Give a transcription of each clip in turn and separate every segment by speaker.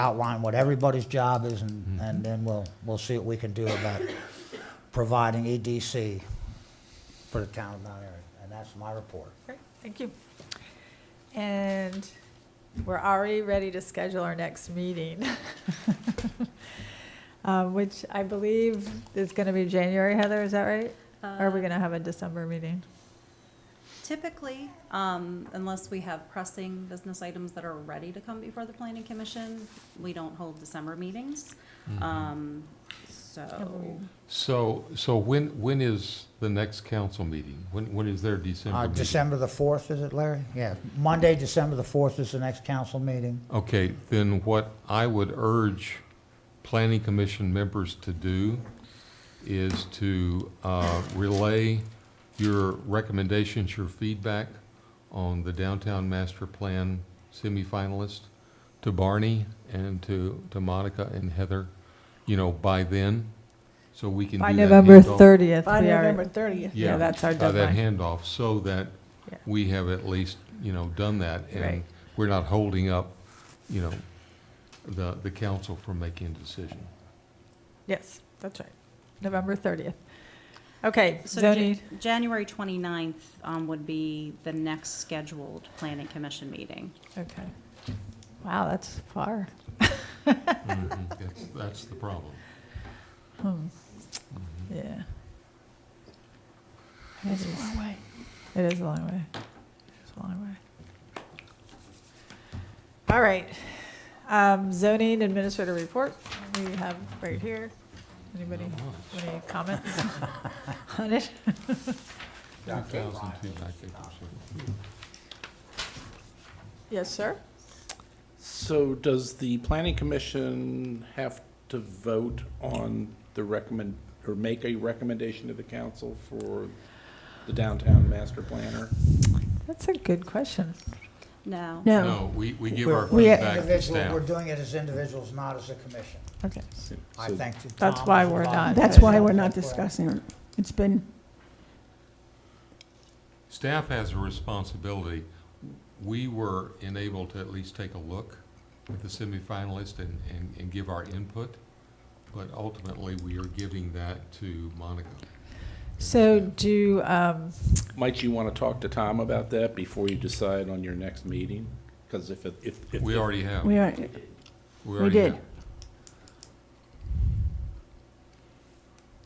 Speaker 1: outline what everybody's job is,
Speaker 2: Mm-hmm.
Speaker 1: and, and then we'll, we'll see what we can do about providing EDC for the town of Mount Airy. And that's my report.
Speaker 3: Great, thank you. And we're already ready to schedule our next meeting, Uh, which I believe is going to be January, Heather, is that right? Or are we
Speaker 4: Uh,
Speaker 3: going to have a December meeting?
Speaker 4: Typically, um, unless we have pressing business items that are ready to come before the planning commission, we don't hold December meetings. Um, so,
Speaker 2: So, so when, when is the next council meeting? When, when is their December
Speaker 1: Uh,
Speaker 2: meeting?
Speaker 1: December the 4th, is it, Larry? Yeah, Monday, December the 4th is the next council meeting.
Speaker 2: Okay, then what I would urge planning commission members to do is to uh, relay your recommendations, your feedback on the downtown master plan semifinalist to Barney and to, to Monica and Heather, you know, by then, so we can do
Speaker 3: By
Speaker 2: that.
Speaker 3: November
Speaker 2: handoff.
Speaker 3: 30th.
Speaker 5: By
Speaker 3: we are-
Speaker 5: November 30th.
Speaker 3: Yeah, that's our
Speaker 2: by
Speaker 3: deadline.
Speaker 2: uh, that handoff, so that
Speaker 3: Yeah.
Speaker 2: we have at least, you know, done that.
Speaker 3: Right.
Speaker 2: And we're not holding up, you know, the, the council from making a decision.
Speaker 3: Yes, that's right, November 30th. Okay,
Speaker 4: so Ja-
Speaker 3: zoning,
Speaker 4: January twenty-ninth, um, would be the next scheduled planning commission meeting.
Speaker 3: okay. Wow, that's far.
Speaker 2: Mm-hmm. That's, that's the problem.
Speaker 3: Hmm. Yeah. It is a long way. It is a long way. It's a long way. All right. Um, zoning administrator report, we have right here. Anybody,
Speaker 2: much.
Speaker 3: any comments on it? Yes, sir?
Speaker 6: So does the planning commission have to vote on the recommend, or make a recommendation to the council for the downtown master planner?
Speaker 3: That's a good question.
Speaker 4: No,
Speaker 5: No,
Speaker 2: No, we, we give our
Speaker 1: We're- we're
Speaker 2: feedback to
Speaker 1: individual- We're
Speaker 2: staff.
Speaker 1: doing it as individuals, not as a commission.
Speaker 3: Okay,
Speaker 1: I
Speaker 6: So-
Speaker 1: think that
Speaker 3: That's
Speaker 1: Tom
Speaker 3: why
Speaker 1: was
Speaker 3: we're
Speaker 1: involved.
Speaker 3: not-
Speaker 5: that's why we're not
Speaker 1: That's why-
Speaker 5: discussing it. It's been,
Speaker 2: Staff has a responsibility. We were enabled to at least take a look at the semifinalist and, and, and give our input, but ultimately, we are giving that to Monica.
Speaker 3: so do, um,
Speaker 6: Might you want to talk to Tom about that before you decide on your next meeting? Because if, it- if. if-
Speaker 2: We already have.
Speaker 5: we are,
Speaker 2: already
Speaker 5: did.
Speaker 2: have.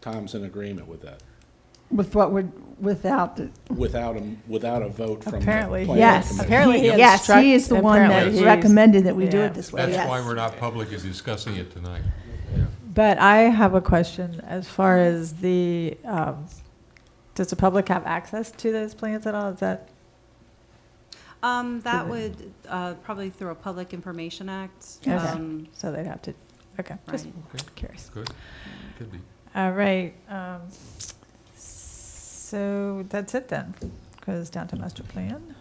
Speaker 6: Tom's in agreement with that,
Speaker 5: with what we're, without the,
Speaker 6: without a, without a vote from the
Speaker 3: Apparently,
Speaker 6: planning
Speaker 5: yes.
Speaker 6: commission.
Speaker 3: Apparently he
Speaker 5: Yes, he is the
Speaker 3: obstruct-
Speaker 5: one that
Speaker 3: apparently he's-
Speaker 5: recommended that we do
Speaker 3: yeah.
Speaker 5: it this way,
Speaker 2: That's
Speaker 5: yes.
Speaker 2: why we're not publicly discussing it tonight.
Speaker 3: But I have a question as far as the, um, does the public have access to those plans at all? Is that,
Speaker 4: um, that would, uh, probably through a Public Information Act,
Speaker 3: Okay.
Speaker 4: um,
Speaker 3: so they'd have to, okay, just
Speaker 4: right.
Speaker 2: Okay,
Speaker 3: curious.
Speaker 2: good. Could be.
Speaker 3: All right, um, so that's it then, because downtown master plan,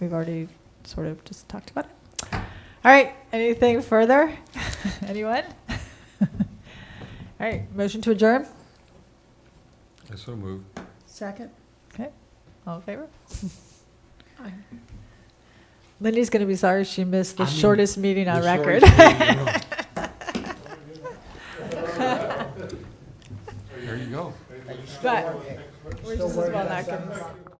Speaker 3: we've already sort of just talked about it. All right, anything further? Anyone? All right, motion to adjourn,
Speaker 2: I so moved.
Speaker 5: Second?
Speaker 3: all in favor? Lindy's gonna be sorry she missed the
Speaker 2: I mean,
Speaker 3: shortest meeting on
Speaker 2: We're sorry
Speaker 3: record.
Speaker 2: to leave you alone. There you go.
Speaker 3: But we're just as well not gonna.